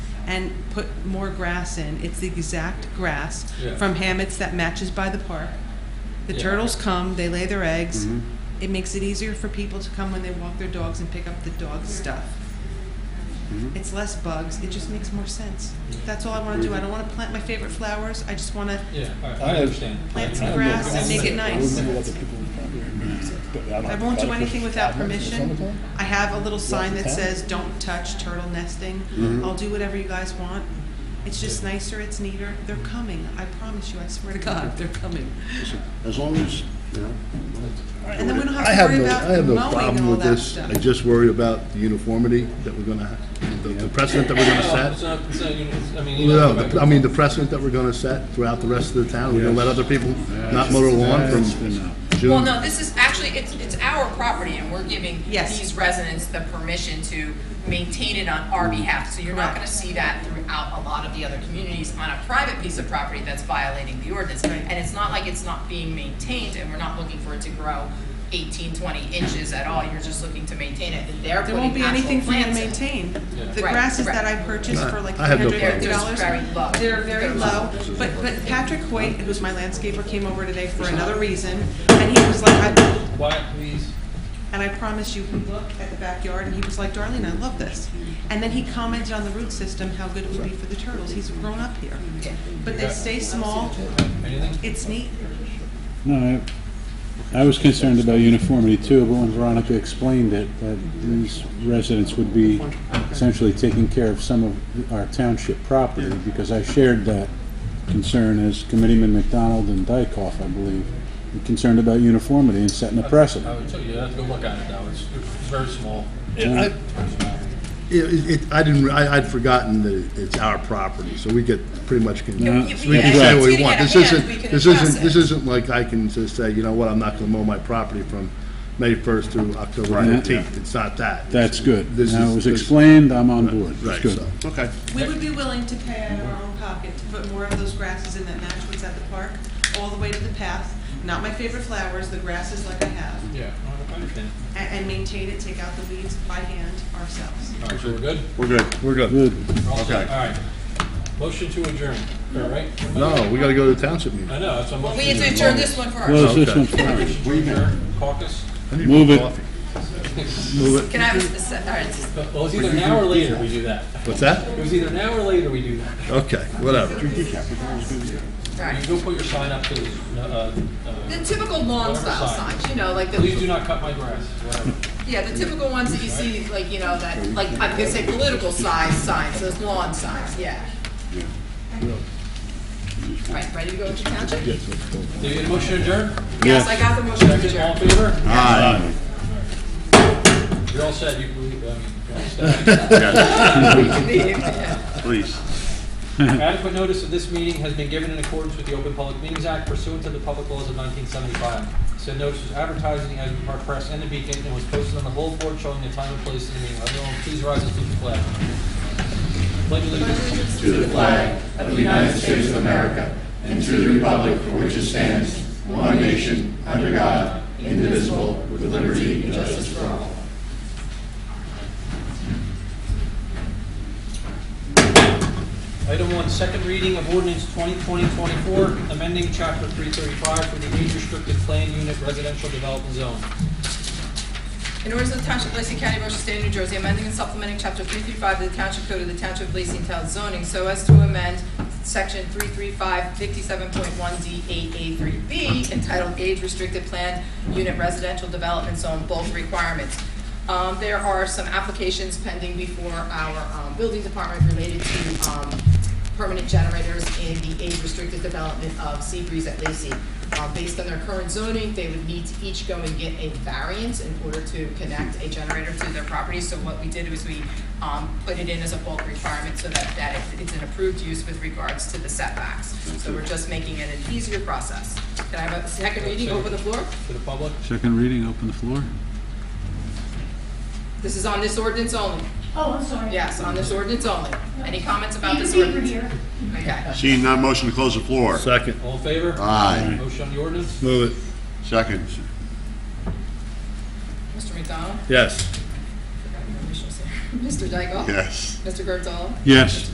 and put more grass in. It's the exact grass Yeah. from hammocks that matches by the park. The Yeah. Mm-hmm. turtles come, they lay their eggs. Mhm. It makes it easier for people to come when they walk their dogs and pick up the dog stuff. Mm-hmm. It's less bugs. It just makes more sense. That's all I want to do. I don't want to plant my favorite flowers. I just want to Yeah, all right, I I understand. plant I some don't grass know. and make it I nice. remember what the people were trying to do. But I'm I not- won't do like anything this. without Not in the permission. summertime? I have a little sign that Yeah. says, don't touch turtle nesting. Mm-hmm. I'll do whatever you guys want. It's just nicer, it's neater. They're coming. I promise you, I swear to God, they're coming. As long as, you know. And then we don't I have have to worry no, I about have no mowing and problem all with that this. I stuff. just worry about the uniformity that we're gonna, ha- the- the precedent that we're No, gonna it's set. not, it's not, you know, it's- I mean, you No, know. the- I mean, the precedent that we're gonna set throughout the rest of the town. We're gonna let other people not mow their lawn from That's enough. Well, June. no, this is, actually, it's, it's our property, and we're giving Yes. these residents the permission to maintain it on our behalf. So you're not gonna see that throughout a lot of the other communities on a private piece of property that's violating the ordinance. Right. And it's not like it's not being maintained, and we're not looking for it to grow 18, 20 inches at all. You're just looking to maintain it, and they're There putting won't be actual anything for you to plants in. maintain. Yeah. The Right, grasses right. that I purchased for like I have no three hundred fifty dollars. problem. They're very They're low, low. but, but Patrick Hoyt, who's my landscaper, came over today for another reason, and he was like, I, Quiet, please. And I promise you, he looked at the backyard and he was like, Darlene, I love this. And then he commented on the root system, how good it would be for the turtles. He's grown up here. But they stay small, Anything? it's neat. No, I, I was concerned about uniformity too, but when Veronica explained it, that these residents would be essentially taking care of some of our township property, because I shared that concern as Committeeman McDonald and Dykoff, I believe, were concerned about uniformity and setting a I precedent. would tell you, you have to go look at it now, it's it's very small. Yeah, I- Yeah, it, it, I didn't, I, I'd forgotten that it- it's our property, so we get pretty much, con- Yeah, we if we- can yeah, say if what it's we want. gonna This get out of isn't, hand, we can this address isn't, this it. isn't like I can just say, you know what, I'm not gonna mow my property from May first through October fifteenth, it's not that. That's good. This Now, is- it was this- explained, I'm on board. It's Right, good. so, okay. We would be willing to pay out of our own pocket to put more of those grasses in that match what's at the park, all the way to the path. Not my favorite flowers, the grasses like I have. Yeah, I understand. And, and maintain it, take out the weeds by hand ourselves. All right, so we're good? We're good, we're good. Good. We're all set? Okay. All right. Motion to adjourn, all right? No, we gotta go to the township meeting. I know, that's a motion. We had to adjourn this one first. Close this one Okay. first. Motion to adjourn, Caucus? I need Move more it. coffee. Can I have a, se- all right, just- Well, it was either now or later we do that. What's that? It was either now or later we do that. Okay, whatever. all You right. go put your sign up to the, uh, uh, The typical lawn style Whatever sign. signs, you know, like the. please do not cut my grass, whatever. Yeah, the typical ones that you see, like, you know, that, like, I'm gonna say political size signs, those lawn signs, yeah. Right, ready to go into township? Do you get a motion to adjourn? Yes, I got the motion to Second, all adjourn. in favor? Aye. You're all set, you, we, um, Please. Adequate notice of this meeting has been given in accordance with the Open Public Meetings Act pursuant to the public laws of 1975. Said notice was advertised in the Asbury Park Press and the Beacon and was posted on the bulletin board showing the time and place of the meeting. Everyone, please rise and salute the flag. Pledge allegiance Item one, second reading of ordinance 2020-24, amending chapter 335 for the age restricted plan unit residential development zone. In order to the Township of Lacey County, Ocean State of New Jersey, amending and supplementing Chapter 335 of the Township Code of the Township of Lacey and Town zoning so as to amend Section 335, 57.1D8A3B entitled Age Restricted Plan Unit Residential Development Zone Bulk Requirements. Um, There are some applications pending before our um, building department related to um, permanent generators in the age-restricted development of Seabreeze at Lacey. Uh, Based on their current zoning, they would need to each go and get a variance in order to connect a generator to their property. So what we did was we um, put it in as a bulk requirement so that, that it- it's an approved use with regards to the setbacks. So we're just making it an easier process. Can I have a second reading, open the floor? To the public, Second reading, open the floor. This is on this ordinance only. Oh, I'm sorry. Yes, on this ordinance only. Any comments about Even this deeper ordinance? here. Okay. Seeing none, motion to close the floor. Second. all in favor? Aye. Motion on the ordinance? Move it. Second. Mr. McDonald? Yes. Mr. Dykoff? Yes. Mr. Gerdahl? Yes.